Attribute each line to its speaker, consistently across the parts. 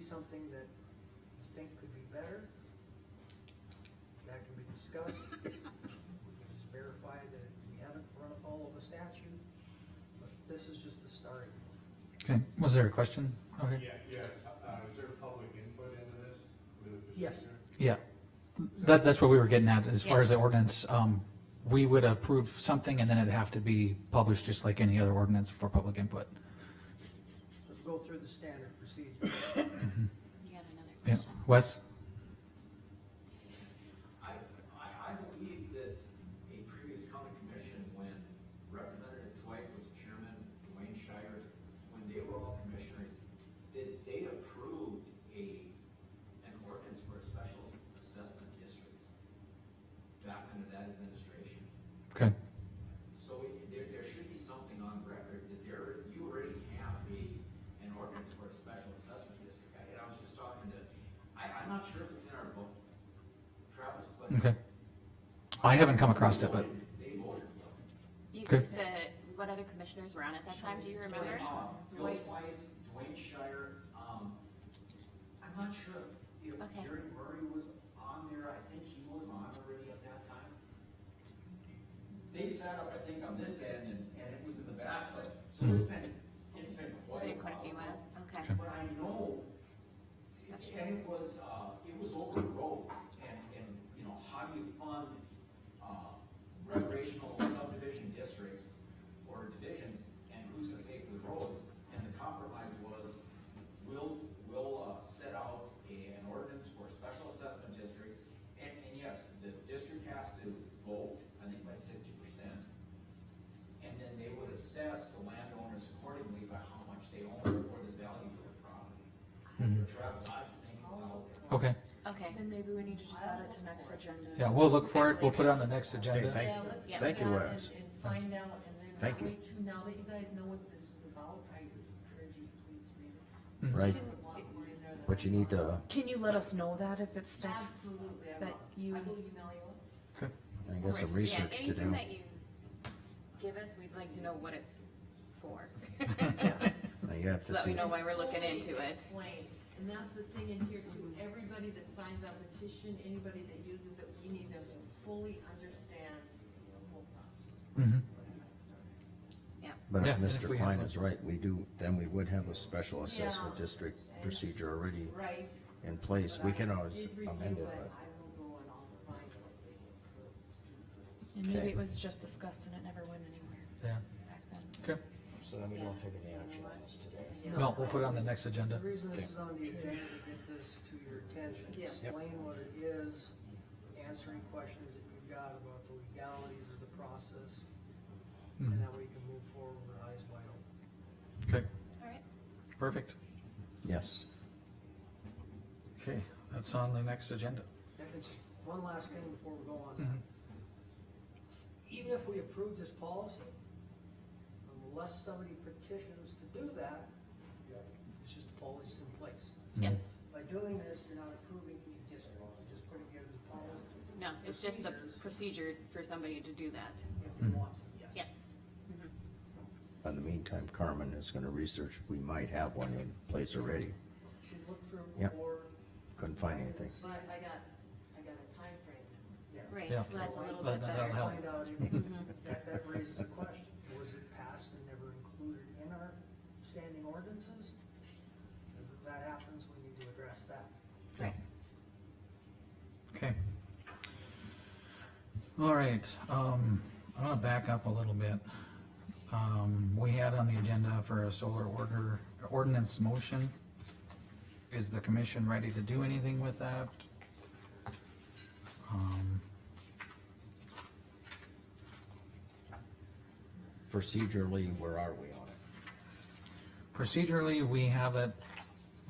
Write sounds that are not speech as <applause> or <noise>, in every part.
Speaker 1: something that you think could be better, that can be discussed. We can just verify that we haven't run afoul of a statute, but this is just the starting.
Speaker 2: Okay, was there a question? Okay,
Speaker 3: Yeah, yeah, uh, is there public input into this? with the
Speaker 1: Yes.
Speaker 3: procedure?
Speaker 2: yeah. That, that's what we were getting at, as far
Speaker 4: Yeah.
Speaker 2: as the ordinance, um, we would approve something and then it'd have to be published just like any other ordinance for public input.
Speaker 1: Let's go through the standard procedure.
Speaker 4: You had another
Speaker 2: Yeah,
Speaker 4: question?
Speaker 2: Wes?
Speaker 5: I, I, I believe that a previous county commission, when Representative Dwight was chairman, Dwayne Shire, when they were all commissioners, that they approved a, an ordinance for a special assessment district back under that administration.
Speaker 2: Okay,
Speaker 5: So it- there, there should be something on record that there, you already have a, an ordinance for a special assessment district. I- And I was just talking to, I, I'm not sure if it's in our book, Travis, but
Speaker 2: okay. I haven't come across it, but,
Speaker 5: they voted for it.
Speaker 4: You
Speaker 2: Okay.
Speaker 4: said, what other commissioners were on at that time, do you remember?
Speaker 5: Uh, Bill White, Dwayne Shire, um, I'm not sure if
Speaker 4: Okay.
Speaker 5: Gary Murray was on there, I think he was on already at that time. They sat up, I think, on this end, and, and it was in the back, but, so it's
Speaker 2: Hmm.
Speaker 5: been, it's been quite a
Speaker 4: Maybe
Speaker 5: while.
Speaker 4: Quite a few miles, okay.
Speaker 2: Okay.
Speaker 5: But I know,
Speaker 4: Special.
Speaker 5: and it was, uh, it was over the road, and, and, you know, how do you fund, uh, recreational subdivision districts or divisions, and who's gonna pay for the roads? And the compromise was, we'll, we'll, uh, set out a- an ordinance for special assessment districts, and, and yes, the district has to vote, I think by sixty percent, and then they would assess the landowners accordingly by how much they own or what is value to their property. Travis, I think it's out there.
Speaker 2: okay,
Speaker 4: Okay,
Speaker 6: Then maybe we need to just add it to next agenda.
Speaker 2: yeah, we'll look for it, we'll put it on the next
Speaker 7: Okay,
Speaker 2: agenda.
Speaker 7: thank
Speaker 6: Yeah,
Speaker 7: you.
Speaker 6: let's do
Speaker 7: Thank you,
Speaker 6: that and-
Speaker 7: Wes.
Speaker 6: And find out, and then
Speaker 7: Thank
Speaker 6: that
Speaker 7: you.
Speaker 6: way too, now that you guys know what this is about, I encourage you to please read it.
Speaker 7: Right,
Speaker 6: There's a lot more in there than
Speaker 7: but
Speaker 6: I
Speaker 7: you need
Speaker 6: thought.
Speaker 7: to,
Speaker 8: Can you let us know that if it's stuff?
Speaker 6: Absolutely, I
Speaker 8: that
Speaker 6: will,
Speaker 8: you-
Speaker 6: I will email you.
Speaker 2: Okay.
Speaker 7: I guess, some
Speaker 4: Yeah,
Speaker 7: research to
Speaker 4: Anything
Speaker 7: do.
Speaker 4: that you give us, we'd like to know what it's
Speaker 7: <laughs>
Speaker 4: for. <laughs>
Speaker 7: Now you have
Speaker 4: So
Speaker 7: to
Speaker 4: that we
Speaker 7: see.
Speaker 4: know why we're looking
Speaker 6: Fully
Speaker 4: into it.
Speaker 6: Explain, and that's the thing in here too, everybody that signs that petition, anybody that uses it, we need them to fully understand the whole process.
Speaker 2: Mhm.
Speaker 4: Yeah,
Speaker 7: But
Speaker 2: Yeah,
Speaker 7: if
Speaker 2: and if we
Speaker 7: Mr.
Speaker 2: have
Speaker 7: Klein
Speaker 2: a-
Speaker 7: is right, we do, then we would have a special assessment
Speaker 6: Yeah.
Speaker 7: district procedure already
Speaker 6: Right.
Speaker 7: in place.
Speaker 6: But
Speaker 7: We
Speaker 6: I
Speaker 7: can always
Speaker 6: did review
Speaker 7: amend it, but.
Speaker 6: I will go and I'll find what they approved.
Speaker 8: And maybe
Speaker 7: Okay.
Speaker 8: it was just discussed and it never went anywhere
Speaker 2: Yeah,
Speaker 8: back then.
Speaker 2: okay,
Speaker 7: So then we don't take any action on this today.
Speaker 2: no, we'll put it on the next agenda.
Speaker 1: The reason this is on the agenda, to get this to your attention,
Speaker 6: Yeah.
Speaker 7: Yep.
Speaker 1: explain what it is, answering questions that you've got about the legalities of the process, and that way you can move forward with our eyes wide open.
Speaker 2: Okay,
Speaker 4: all right.
Speaker 2: perfect.
Speaker 7: Yes.
Speaker 2: Okay, that's on the next agenda.
Speaker 1: And and just one last thing before we go on. Even if we approve this policy, unless somebody petitions to do that, it's just a policy in place.
Speaker 4: Yep,
Speaker 1: By doing this, you're not approving any district, you're just putting it as a policy
Speaker 4: no, it's just the procedure for somebody to do that.
Speaker 1: if you want to, yes.
Speaker 4: Yep,
Speaker 7: In the meantime, Carmen is gonna research. We might have one in place already.
Speaker 1: Should look through
Speaker 7: Yep.
Speaker 1: more,
Speaker 7: Couldn't find anything.
Speaker 6: But I got, I got a timeframe.
Speaker 1: yeah.
Speaker 4: right,
Speaker 2: Yeah.
Speaker 4: so that's a little
Speaker 2: That-
Speaker 4: bit
Speaker 2: that'll
Speaker 4: better.
Speaker 2: help.
Speaker 1: Find out if, that, that raises a question, was it passed and never included in our standing ordinances? If that happens, we need to address that.
Speaker 2: Okay. All right, um, I'm gonna back up a little bit. Um, we had on the agenda for a solar order, ordinance motion. Is the commission ready to do anything with that? Um,
Speaker 7: Procedurally, where are we on it?
Speaker 2: Procedurally, we have it,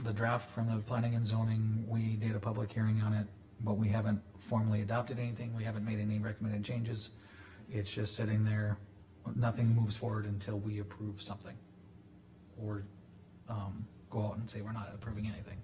Speaker 2: the draft from the planning and zoning, we did a public hearing on it, but we haven't formally adopted anything, we haven't made any recommended changes. It's just sitting there, nothing moves forward until we approve something. Or, um, go out and say we're not approving anything.